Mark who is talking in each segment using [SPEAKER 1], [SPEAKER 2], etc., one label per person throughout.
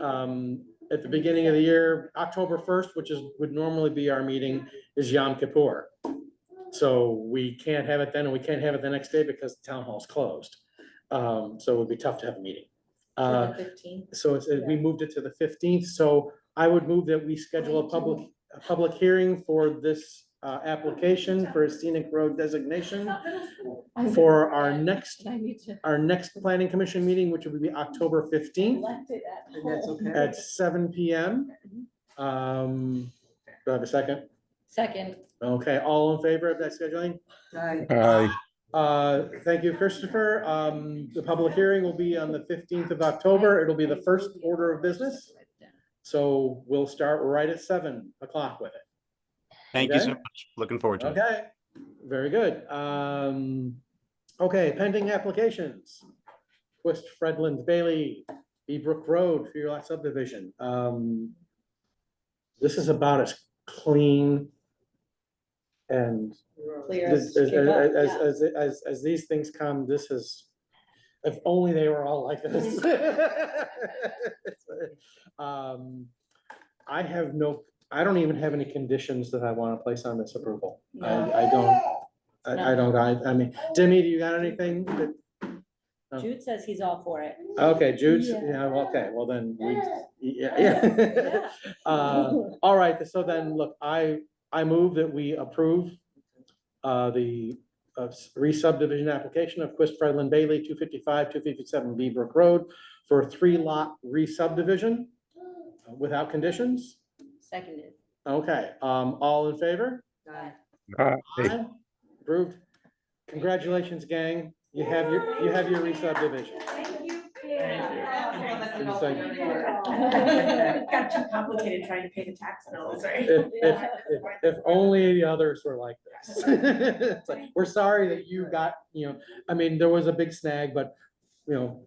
[SPEAKER 1] um, at the beginning of the year, October first, which is, would normally be our meeting, is Yom Kippur. So we can't have it then, and we can't have it the next day because the town hall's closed. Um, so it would be tough to have a meeting. Uh,
[SPEAKER 2] the fifteenth.
[SPEAKER 1] so it's, we moved it to the fifteenth, so I would move that we schedule a public, a public hearing for this uh, application for a scenic road designation for our next,
[SPEAKER 2] I need to
[SPEAKER 1] our next planning commission meeting, which would be October fifteenth
[SPEAKER 2] left it at
[SPEAKER 3] And that's
[SPEAKER 2] home.
[SPEAKER 3] okay.
[SPEAKER 1] at seven P M. Um, do I have a second?
[SPEAKER 2] Second,
[SPEAKER 1] Okay, all in favor of that scheduling?
[SPEAKER 3] Aye.
[SPEAKER 4] Aye.
[SPEAKER 1] Uh, thank you, Christopher. Um, the public hearing will be on the fifteenth of October. It'll be the first order of business. So we'll start right at seven o'clock with it.
[SPEAKER 4] Thank you so
[SPEAKER 1] Okay.
[SPEAKER 4] much. Looking forward to it.
[SPEAKER 1] Okay, very good. Um, okay, pending applications. West Fredland Bailey, Beebrook Road for your lot subdivision. Um, this is about as clean and
[SPEAKER 2] clear.
[SPEAKER 1] This-
[SPEAKER 2] as
[SPEAKER 1] As,
[SPEAKER 2] she goes,
[SPEAKER 1] as,
[SPEAKER 2] yeah.
[SPEAKER 1] as, as, as these things come, this is, if only they were all like this. Um, I have no, I don't even have any conditions that I want to place on this approval. I,
[SPEAKER 2] No.
[SPEAKER 1] I don't, I, I don't, I, I mean, Demi, do you got anything? that- as-
[SPEAKER 2] Jude says he's all for it.
[SPEAKER 1] Okay, Jude's,
[SPEAKER 2] Yeah.
[SPEAKER 1] yeah, well, okay, well then, we, yeah, yeah.
[SPEAKER 2] Yeah.
[SPEAKER 1] Uh, all right, so then, look, I, I move that we approve uh, the uh, re-subdivision application of Quist Fredlin Bailey, two fifty-five, two fifty-seven Beaverbrook Road for a three-lot re-subdivision uh, without conditions.
[SPEAKER 2] Seconded.
[SPEAKER 1] Okay, um, all in favor?
[SPEAKER 3] Aye.
[SPEAKER 4] Aye.
[SPEAKER 1] Aye. Approved. Congratulations, gang. You have your, you have your re-subdivision.
[SPEAKER 5] Got too complicated trying to pay the tax bills, right?
[SPEAKER 1] If, if, if, if only the others were like this. It's like, We're sorry that you got, you know, I mean, there was a big snag, but, you know,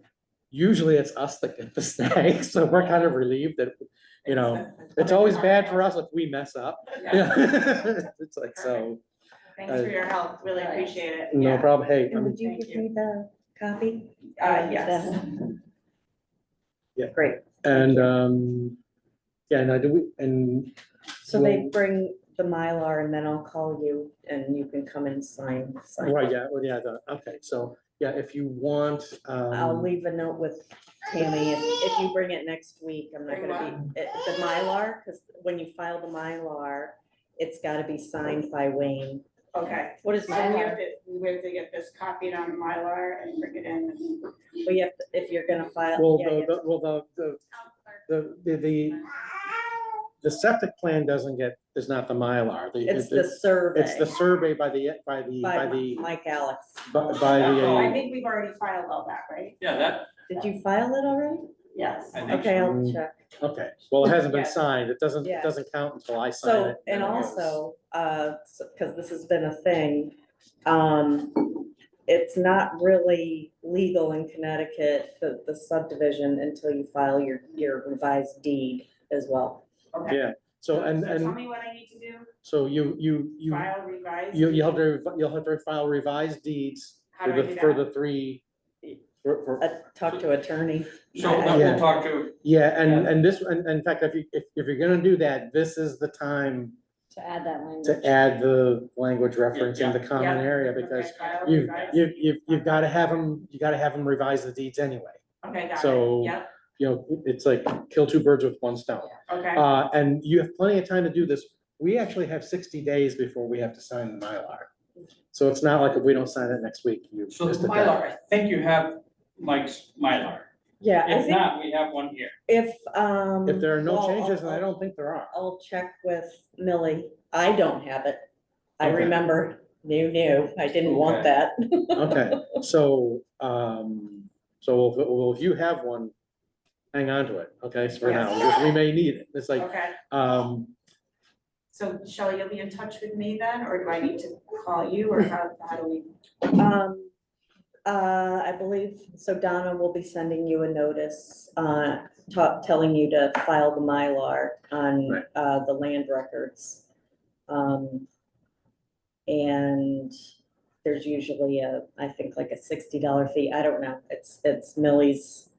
[SPEAKER 1] usually it's us that get the snag, so we're kind of relieved that, you know, it's always bad for us if we mess up.
[SPEAKER 5] Yeah.
[SPEAKER 1] Yeah, It's like, so,
[SPEAKER 5] Thanks for your help, really appreciate it.
[SPEAKER 1] no
[SPEAKER 5] Yeah.
[SPEAKER 1] problem, hey, um, I'm-
[SPEAKER 5] you Thank give you.
[SPEAKER 6] me the copy?
[SPEAKER 5] Uh, yes.
[SPEAKER 1] and, um, yeah, and I do, we- and
[SPEAKER 6] So they
[SPEAKER 1] Well-
[SPEAKER 6] bring the Mylar and then I'll call you and you can come and sign, sign.
[SPEAKER 1] Right, yeah, well, yeah, the- okay, so, yeah, if you want,
[SPEAKER 6] I'll
[SPEAKER 1] um,
[SPEAKER 6] leave a note with Tammy if, if you bring it next week, I'm not
[SPEAKER 5] Bring
[SPEAKER 6] gonna be, eh, the Mylar, because when you file the Mylar, it's gotta be signed by Wayne.
[SPEAKER 5] Okay.
[SPEAKER 2] What is
[SPEAKER 5] So we
[SPEAKER 2] my,
[SPEAKER 5] have to, we have to get this copied on Mylar and bring it in.
[SPEAKER 6] But you have, to- if you're gonna file.
[SPEAKER 1] well,
[SPEAKER 6] yeah, you
[SPEAKER 1] the,
[SPEAKER 6] have
[SPEAKER 1] the- well, the, the, the, the- the, the septic plan doesn't get, is not the Mylar.
[SPEAKER 6] to-
[SPEAKER 1] the-
[SPEAKER 6] It's the survey.
[SPEAKER 1] It's the survey by the, by the, by
[SPEAKER 6] By
[SPEAKER 1] the,
[SPEAKER 6] Mike Alex.
[SPEAKER 1] by by
[SPEAKER 5] Oh, I
[SPEAKER 1] the, uh,
[SPEAKER 5] think we've already filed all that, right?
[SPEAKER 7] Yeah, that,
[SPEAKER 6] Did you file it already?
[SPEAKER 5] Yes.
[SPEAKER 7] I think
[SPEAKER 6] Okay, I'll
[SPEAKER 1] so.
[SPEAKER 6] check.
[SPEAKER 1] okay, well, it hasn't been
[SPEAKER 5] Yeah.
[SPEAKER 1] signed, it doesn't, it
[SPEAKER 6] Yeah.
[SPEAKER 1] doesn't count until I sign
[SPEAKER 6] So,
[SPEAKER 1] it. then
[SPEAKER 6] and
[SPEAKER 1] it goes.
[SPEAKER 6] also, uh, because this has been a thing, um, it's not really legal in Connecticut, the, the subdivision until you file your, your revised deed as well.
[SPEAKER 5] Okay.
[SPEAKER 1] Yeah, so, and,
[SPEAKER 5] Tell
[SPEAKER 1] and,
[SPEAKER 5] me what I need to do,
[SPEAKER 1] so you, you, you,
[SPEAKER 5] file, revise.
[SPEAKER 1] you, you'll have to, you'll have to file revised deeds
[SPEAKER 5] How
[SPEAKER 1] for
[SPEAKER 5] do I
[SPEAKER 1] the,
[SPEAKER 5] do
[SPEAKER 1] for
[SPEAKER 5] that?
[SPEAKER 1] the three. for- for-
[SPEAKER 6] Uh, talk to attorney.
[SPEAKER 7] so then
[SPEAKER 1] Yeah.
[SPEAKER 7] we'll talk to,
[SPEAKER 1] Yeah, and, and this, and, and in fact, if you, if, if you're gonna do that, this is the time
[SPEAKER 2] to add that language?
[SPEAKER 1] to add the language reference in the common
[SPEAKER 5] Yeah.
[SPEAKER 1] area,
[SPEAKER 5] Okay,
[SPEAKER 1] because
[SPEAKER 5] file,
[SPEAKER 1] you,
[SPEAKER 5] revise.
[SPEAKER 1] you, you've, you've gotta have them, you gotta have them revise the deeds anyway.
[SPEAKER 5] Okay, got it,
[SPEAKER 1] so-
[SPEAKER 5] yep,
[SPEAKER 1] You know, it's like kill two birds with one stone.
[SPEAKER 5] okay.
[SPEAKER 1] Uh, and you have plenty of time to do this. We actually have sixty days before we have to sign the Mylar. So it's not like if we don't sign it next week, you.
[SPEAKER 7] so
[SPEAKER 1] missed
[SPEAKER 7] the
[SPEAKER 1] a deadline.
[SPEAKER 7] Mylar, I think you have Mike's Mylar.
[SPEAKER 6] Yeah, I
[SPEAKER 7] If
[SPEAKER 6] think
[SPEAKER 7] not, we have one here.
[SPEAKER 6] if, um.
[SPEAKER 1] If there are
[SPEAKER 6] well,
[SPEAKER 1] no
[SPEAKER 6] I'll-
[SPEAKER 1] changes, and I
[SPEAKER 6] I'll-
[SPEAKER 1] don't think there are.
[SPEAKER 6] I'll check with Millie. I don't have it. I
[SPEAKER 1] Okay.
[SPEAKER 6] remember, new, new. I didn't want
[SPEAKER 7] Okay.
[SPEAKER 6] that.
[SPEAKER 1] Okay, so, um, so we'll- well, if you have one, hang on to it, okay, for now, because we may need it. It's like,
[SPEAKER 5] Okay,
[SPEAKER 1] um,
[SPEAKER 5] so Shelley, you'll be in touch with me then, or do I need to call you, or how, how do we?
[SPEAKER 6] Um, uh, I believe, so Donna will be sending you a notice, uh, ta- telling you to file the Mylar on,
[SPEAKER 1] Right.
[SPEAKER 6] uh, the land records. Um, and there's usually a, I think like a sixty dollar fee, I don't know, it's, it's Millie's uh,